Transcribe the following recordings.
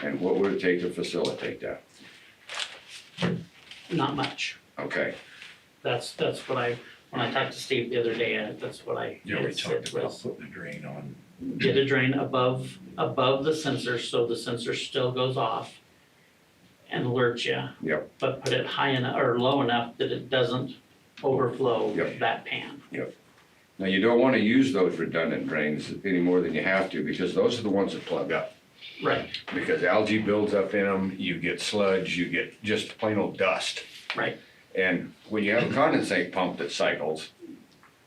and what would it take to facilitate that? not much. Okay, That's, that's what I, when I talked to Steve the other day, uh, that's what I. Yeah, we had said talked about was putting a drain on. Get a drain above, above the sensor, so the sensor still goes off and alerts you. Yep. But put it high enough, or low enough that it doesn't overflow Yep. that pan. now you don't wanna use those redundant drains any more than you have to, because those are the ones that plug up. Right, Because algae builds up in them, you get sludge, you get just plain old dust. right, And when you have a condensate pump that cycles,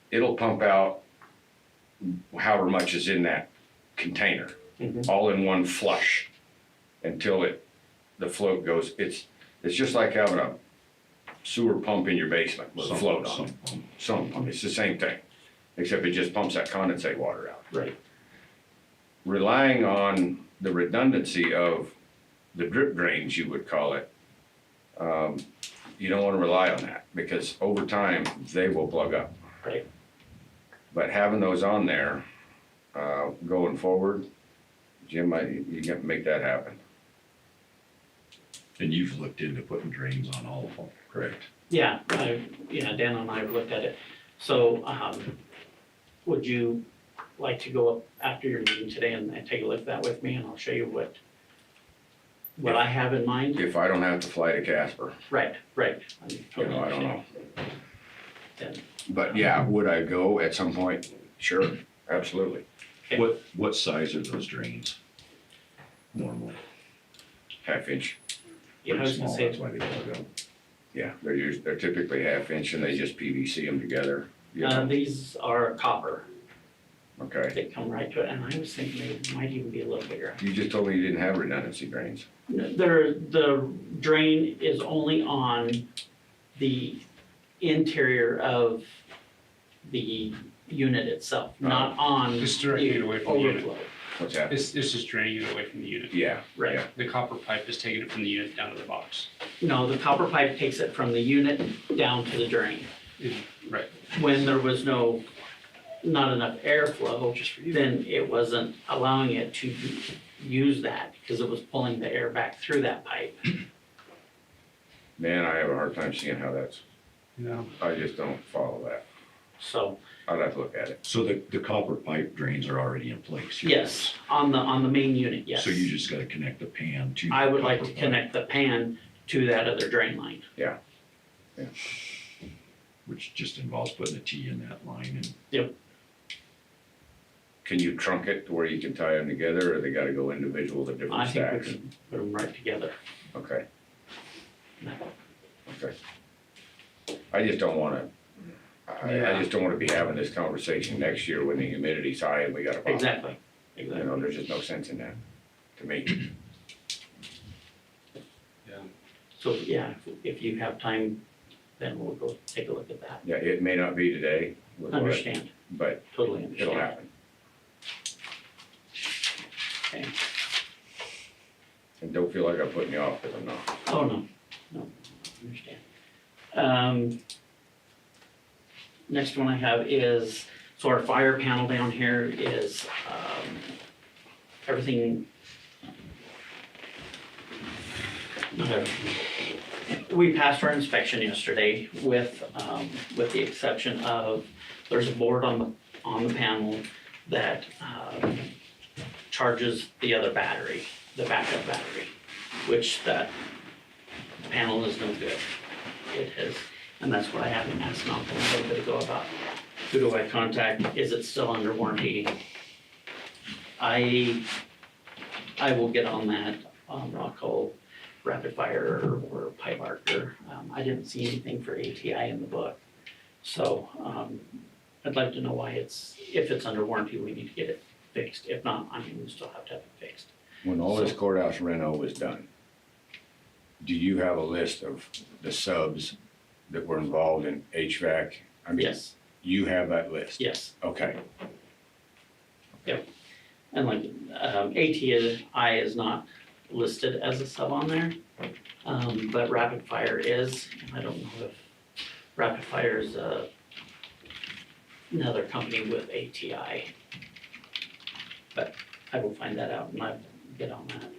it'll pump out however much is in that container, Mhm. all in one flush until it, the float goes, it's, it's just like having a sewer pump in your basement with a some- float on it. some- Some pump, it's the same thing, except it just pumps that condensate water out. right, Relying on the redundancy of the drip drains, you would call it, um, you don't want to rely on that because over time they will plug up. right. But having those on there uh, going forward, Jim, I, you got to make that happen. And you've looked into putting drains on all of them, correct? Yeah, I, yeah, Dan and I have looked at it. So, um, would you like to go up after your meeting today and, and take a look at that with me and I'll show you what, what I have in mind? If I don't have to fly to Casper, Right, right. you know, I don't know. Then, But yeah, would I go at some point? Sure, absolutely. Okay. What, what size are those drains normally? Half inch. yeah, I Pretty was gonna small, say, That's why they plug up. Yeah, they're usually, they're typically half inch and they just PVC them together. you uh, know. these are copper. Okay. They come right to it and I was thinking they might even be a little bigger. You just told me you didn't have redundancy drains. There, the drain is only on the interior of the unit itself, not on the It's directly away from the unit. overflow. What's that? It's, it's just draining it away from the unit. Yeah, Right, The copper pipe is taking it from the unit down to the box. no, the copper pipe takes it from the unit down to the drain. Right. When there was no, not enough airflow, then it wasn't allowing it to use that because it was pulling the air back through that pipe. man, I have a hard time seeing how that's, No. I just don't follow that. So, I'd have to look at it. So the, the copper pipe drains are already in place? you're- yes, on the, on the main unit, yes. So you just gotta connect the pan to. I would the like copper to pipe, connect the pan to that other drain line. Which just involves putting a T in that line and Can you trunk it to where you can tie them together, or they gotta go individual to I different think we stacks? can put them right together. Okay. Okay. I just don't wanna, I, I Yeah. just don't wanna be having this conversation next year when the humidity's high and we got a problem. Exactly, You know, exactly. there's just no sense in that, to me. So, yeah, if- if you have time, then we'll go take a look at that. Yeah, it may not be today, with what- Understand, but totally it'll understand. happen. Okay. And don't feel like I'm putting you off, cause I'm not. Oh, no, no, understand. Um, next one I have is, so our fire panel down here is, um, everything. Not everything. We passed our inspection yesterday with, um, with the exception of, there's a board on the, on the panel that, um, charges the other battery, the backup battery, which that panel is no good. It is, and that's what I have been asking off a little bit ago about. Who do I contact? Is it still under warranty? I, I will get on that, um, I'll call Rapid Fire or Pipe Archer. Um, I didn't see anything for ATI in the book. So, um, I'd like to know why it's, if it's under warranty, we need to get it fixed. If not, I mean, we still have to have it fixed. When all this courthouse reno was done, do you have a list of the subs that were involved in HVAC? I mean, Yes, You have that list? yes. Okay, And like, um, ATI is not listed as a sub on there, um, but Rapid Fire is, and I don't know if Rapid Fire is, uh, another company with ATI. But I will find that out and I'll get on that.